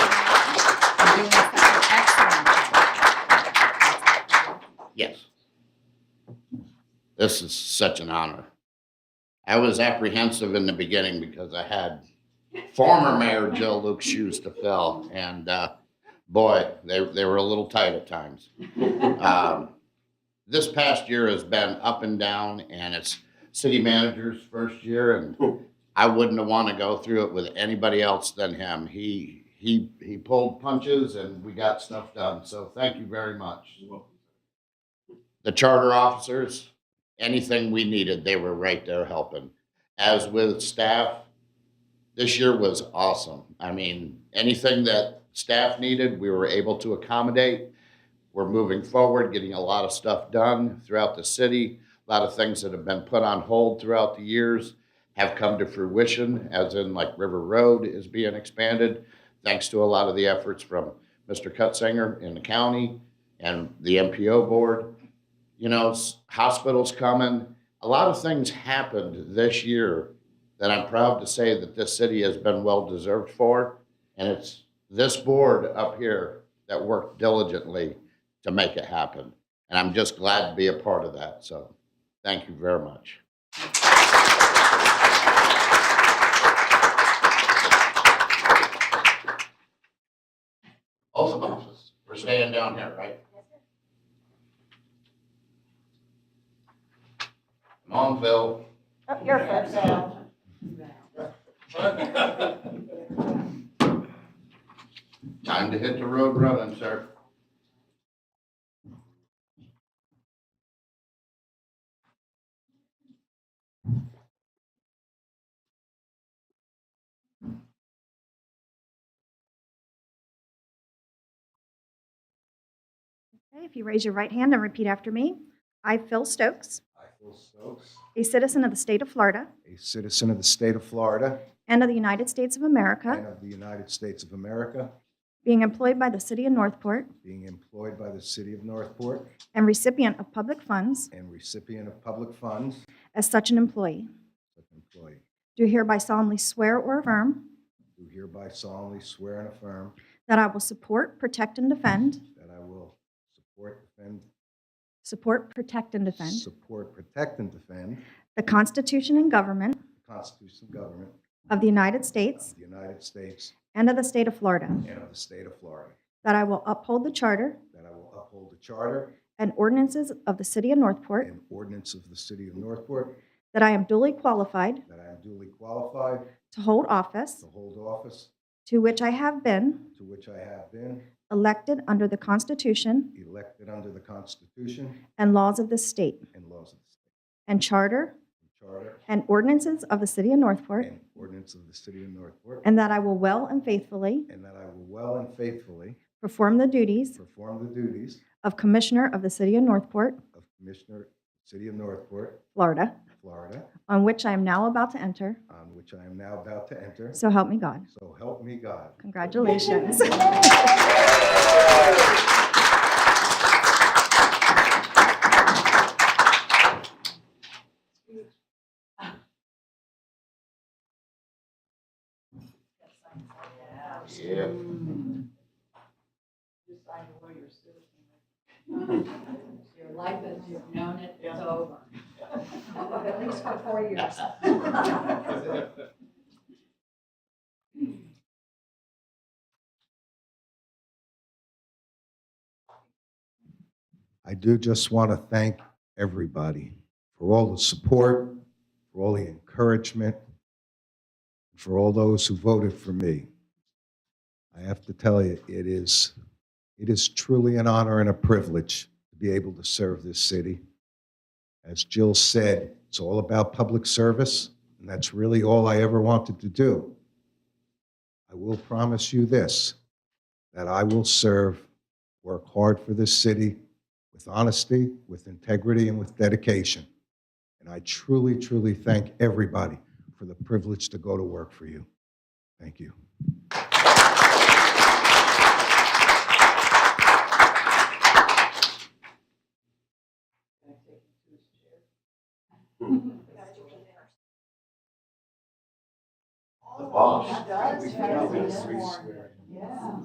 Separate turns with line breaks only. This is such an honor. I was apprehensive in the beginning because I had former Mayor Joe Luke's shoes to fill, and uh, boy, they, they were a little tight at times. Um, This past year has been up and down, and it's city manager's first year, and I wouldn't want to go through it with anybody else than him. He, he, he pulled punches, and we got stuff done, so thank you very much the charter officers, anything we needed, they were right there helping. As with staff, this year was awesome. I mean, anything that staff needed, we were able to accommodate. We're moving forward, getting a lot of stuff done throughout the city. A lot of things that have been put on hold throughout the years have come to fruition, as in like River Road is being expanded, thanks to a lot of the efforts from Mr. Cutzinger in the county and the MPO board you know, s- hospitals coming. A lot of things happened this year that I'm proud to say that this city has been well deserved for. And it's this board up here that worked diligently to make it happen. And I'm just glad to be a part of that. So thank you very much. Oath of office. We're staying down here, right? Come on, Phil.
Oh, You're first.
Time to hit the road running, sir.
Okay, If you raise your right hand and repeat after me. I, Phil Stokes,
I, Phil Stokes,
a citizen of the state of Florida
a citizen of the state of Florida
and of the United States of
and
America,
of the United States of America,
being employed by the city of Northport
being employed by the city of Northport
and recipient of public funds
and recipient of public funds,
as such an employee,
such employee,
do hereby solemnly swear or affirm
do hereby solemnly swear and affirm
that I will support, protect, and defend,
that I will support, defend,
support, protect, and defend
support, protect, and defend
the Constitution and government
the Constitution and government
of the United
of
States
the United States
and of the state of Florida,
and of the state of Florida,
that I will uphold the charter
that I will uphold the charter
and ordinances of the city of Northport,
and ordinance of the city of Northport,
that I am duly qualified
that I am duly qualified
to hold office
to hold office
to which I have been
to which I have been
elected under the Constitution
elected under the Constitution
and laws of this state,
and laws of the state,
and charter
and charter
and ordinances of the city of Northport,
and ordinance of the city of Northport,
and that I will well and faithfully
and that I will well and faithfully
perform the duties
perform the duties
of Commissioner of the city of Northport,
of Commissioner, City of Northport,
Florida,
Florida,
on which I am now about to enter,
on which I am now about to enter.
so help me God.
So help me God.
Congratulations.
Yeah.
Just sign the lawyer citizen. Your life as you've known it is over. At least for four years.
I do just want to thank everybody for all the support, for all the encouragement, for all those who voted for me. I have to tell you, it is, it is truly an honor and a privilege to be able to serve this city. As Jill said, it's all about public service, and that's really all I ever wanted to do. I will promise you this, that I will serve, work hard for this city, with honesty, with integrity, and with dedication. And I truly, truly thank everybody for the privilege to go to work for you. Thank you.
The boss.
Does, has, and more. Yeah.